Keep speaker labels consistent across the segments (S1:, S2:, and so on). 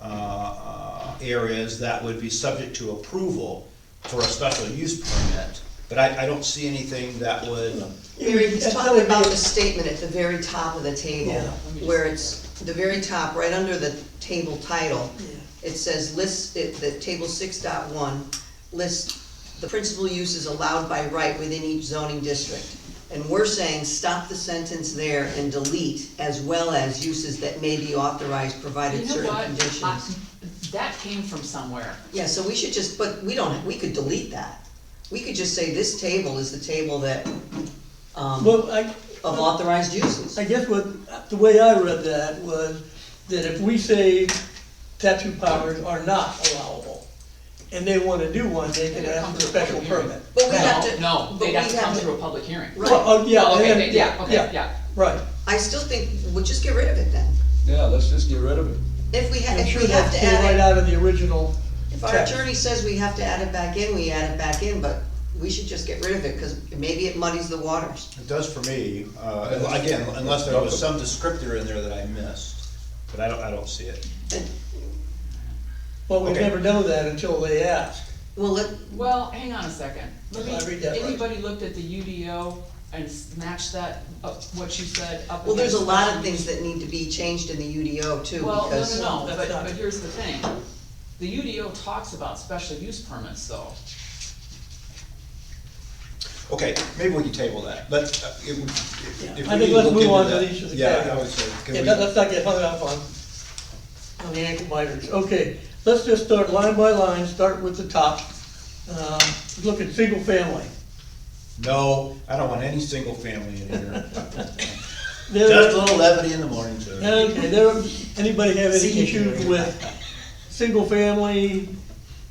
S1: uh, areas that would be subject to approval for a special use permit, but I, I don't see anything that would,
S2: Mary, he's talking about the statement at the very top of the table,
S3: Yeah, let me just-
S2: where it's, the very top, right under the table title,
S3: Yeah.
S2: it says list, it, the table six dot one, list the principal uses allowed by right within each zoning district. And we're saying, stop the sentence there and delete, as well as uses that may be authorized provided
S3: You know
S2: certain
S3: what?
S2: conditions.
S3: I- That came from somewhere.
S2: Yeah, so we should just, but we don't, we could delete that. We could just say, this table is the table that, um.
S4: Well, I,
S2: of authorized uses.
S4: I guess what, the way I read that was that if we say tattoo powers are not allowable, and they wanna do one, they can
S3: They'd
S4: ask
S3: come
S4: for a
S3: to a
S4: special
S3: public hearing.
S4: permit.
S2: But we
S3: No,
S2: have to-
S3: No,
S2: but
S3: they'd
S2: we
S3: have to
S2: have
S3: come
S2: to-
S3: through a public hearing.
S2: Right.
S4: Well, oh, yeah,
S3: Okay,
S4: and
S3: they-
S4: then-
S3: yeah,
S4: yeah,
S3: okay, yeah.
S4: yeah, right.
S2: I still think we'll just get rid of it then.
S5: Yeah, let's just get rid of it.
S2: If we, ha-
S4: I'm
S2: if
S4: sure
S2: we have
S4: that
S2: to
S4: came right
S2: add it,
S4: out of the original
S2: if our
S4: text.
S2: attorney says we have to add it back in, we add it back in, but we should just get rid of it, cause maybe it muddies the waters.
S1: it does for me, uh, again, unless there was some descriptor in there that I missed, but I don't, I don't see it.
S4: Well, we
S1: Okay.
S4: never know that until they ask.
S2: Well, let,
S3: Well, hang on a second. Let
S4: I read
S3: me,
S4: that right.
S3: anybody looked at the UDO and s- matched that, up what you said up
S2: well, there's a
S3: against
S2: lot
S3: special
S2: of things
S3: use?
S2: that need to be changed in the UDO too,
S3: Well, no,
S2: because.
S3: no, no, but,
S4: That's not-
S3: but here's the thing. The UDO talks about special use permits though.
S1: Okay, maybe we can table that, but uh, it would, if if we need to look into that.
S4: I think let's move on to these. other
S1: Yeah, I would
S4: categories.
S1: say, can
S4: Yeah,
S1: we-
S4: let- let's not get hung up on, on the ankle biters. Okay, let's just start line by line, start with the top. Um, Look at single family.
S1: No, I don't want any single family in here.
S4: There-
S1: Just a little levity in the morning, sir.
S4: Okay, there, anybody have any
S2: See, you can
S4: issues
S2: read
S4: with single family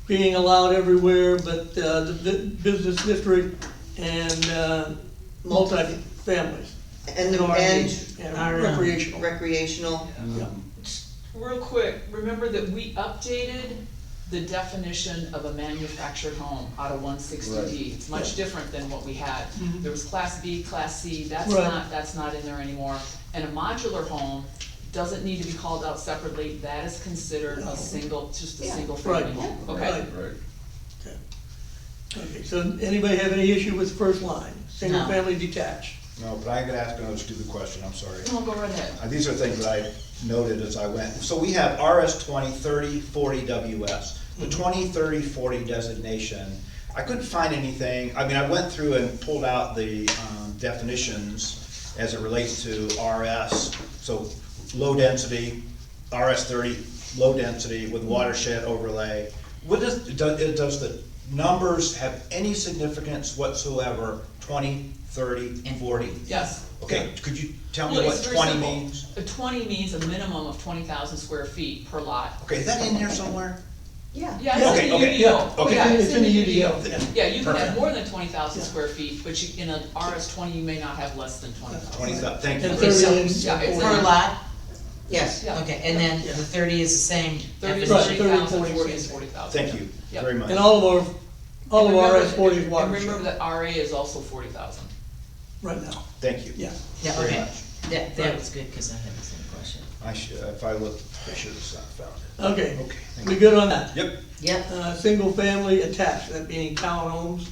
S4: being allowed everywhere, but uh, the the business district and uh, multifamilies?
S2: And the, and
S4: And recreational.
S2: recreational,
S4: Yeah.
S3: Real quick, remember that we updated the definition of a manufactured home out of one sixty D. It's much different than what we had. There was class B, class C, that's
S4: Mm-hmm. Right.
S3: not, that's not in there anymore. And a modular home doesn't need to be called out separately, that is considered
S4: No.
S3: a single, just a
S2: Yeah.
S3: single
S4: Right.
S3: family home,
S4: Yeah.
S3: okay?
S4: Right.
S5: Right.
S4: Okay, so anybody have any issue with first line, single
S3: No.
S4: family detached?
S1: No, but I'm gonna ask another stupid question, I'm sorry.
S3: No, go right ahead.
S1: Uh, These are things that I noted as I went. So we have RS 20, 30, 40 WS. The
S3: Mm-hmm.
S1: 20, 30, 40 designation, I couldn't find anything, I mean, I went through and pulled out the um, definitions as it relates to RS. So low density, RS thirty, low density
S3: Mm-hmm.
S1: with watershed overlay. What does, does, it- does the numbers have any significance whatsoever, 20, 30, 40?
S3: Yes.
S1: Okay, could you tell me
S3: Well,
S1: what
S3: it's very
S1: twenty
S3: simple.
S1: means?
S3: A twenty means a minimum of twenty thousand square feet per lot.
S1: Okay, is that in here somewhere?
S2: yeah.
S3: Yeah, it's in
S1: Okay, okay,
S3: the UDO.
S1: okay.
S3: Yeah,
S4: It's in the UDO, yeah.
S3: Yeah, you can have
S1: Perfect.
S3: more than twenty thousand
S4: Yeah.
S3: square feet, but you, in an RS twenty, you may not have less than twenty thousand.
S1: Twenty thou, thank
S4: And
S1: you.
S4: thirty
S6: So-
S4: is.
S3: yeah, it's
S6: Per lot,
S2: Yes,
S3: Yeah,
S6: okay, and then the thirty is the same
S3: thirty,
S4: Right,
S3: thirty
S6: definition.
S4: thirty,
S3: thousand,
S4: forty,
S3: forty is
S4: same.
S3: forty thousand.
S1: Thank you very much.
S4: And all of our, all of our Oh, S forty is
S3: And remember
S4: watershed,
S3: that RA is also forty thousand.
S4: right now,
S1: Thank you.
S4: yeah.
S6: Yeah,
S1: Very
S6: okay,
S1: much.
S6: that, that was good, cause I had the same question.
S1: I should, if I looked, I should have found it.
S4: Okay,
S1: Okay, thank
S4: we good on that?
S1: Yep,
S6: Yep,
S4: Uh, single family attached, that being townhomes,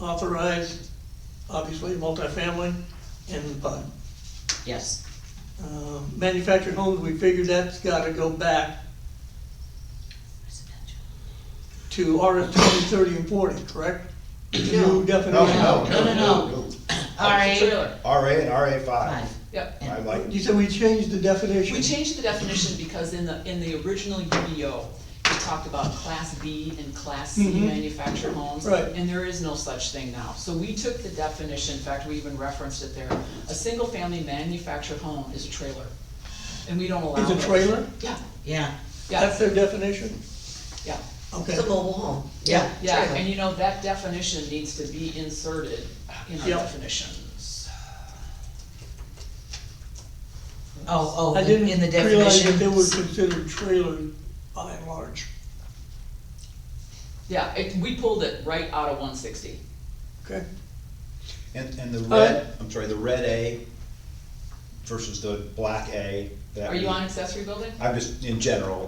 S4: authorized, obviously, multifamily, and the PUD.
S6: yes,
S4: Uh, Manufactured homes, we figured that's gotta go back to RS twenty, thirty, and forty, correct?
S2: No.
S4: New
S1: no,
S4: definition.
S1: no,
S6: No,
S1: no,
S6: no,
S1: no,
S6: alright,
S3: Trailer,
S1: no. RA and RA five.
S6: five,
S3: yep.
S1: I like,
S4: You said we changed the definition.
S3: We changed the definition because in the, in the original UDO, it talked about class B and class C
S4: Mhm.
S3: manufactured homes.
S4: Right.
S3: And there is no such thing now. So we took the definition, in fact, we even referenced it there. A single-family manufactured home is a trailer, and we don't allow
S4: Is
S3: it.
S4: a trailer?
S3: Yeah,
S6: yeah,
S4: That's
S3: yeah,
S4: their definition?
S3: yeah,
S4: Okay.
S2: it's a mobile home, yeah.
S6: Yeah.
S3: yeah,
S2: trailer.
S3: and you know, that definition needs to be inserted in our
S4: Yep.
S3: definitions.
S6: oh, oh,
S4: I
S6: in
S4: didn't
S6: in the
S4: realize that they were
S6: definitions,
S4: considered trailers by and large.
S3: Yeah, it, we pulled it right out of one sixty.
S4: Okay,
S1: and, and the red, I'm sorry, the red A versus the black A. that
S3: Are you
S1: we-
S3: on accessory building?
S1: I'm just, in general,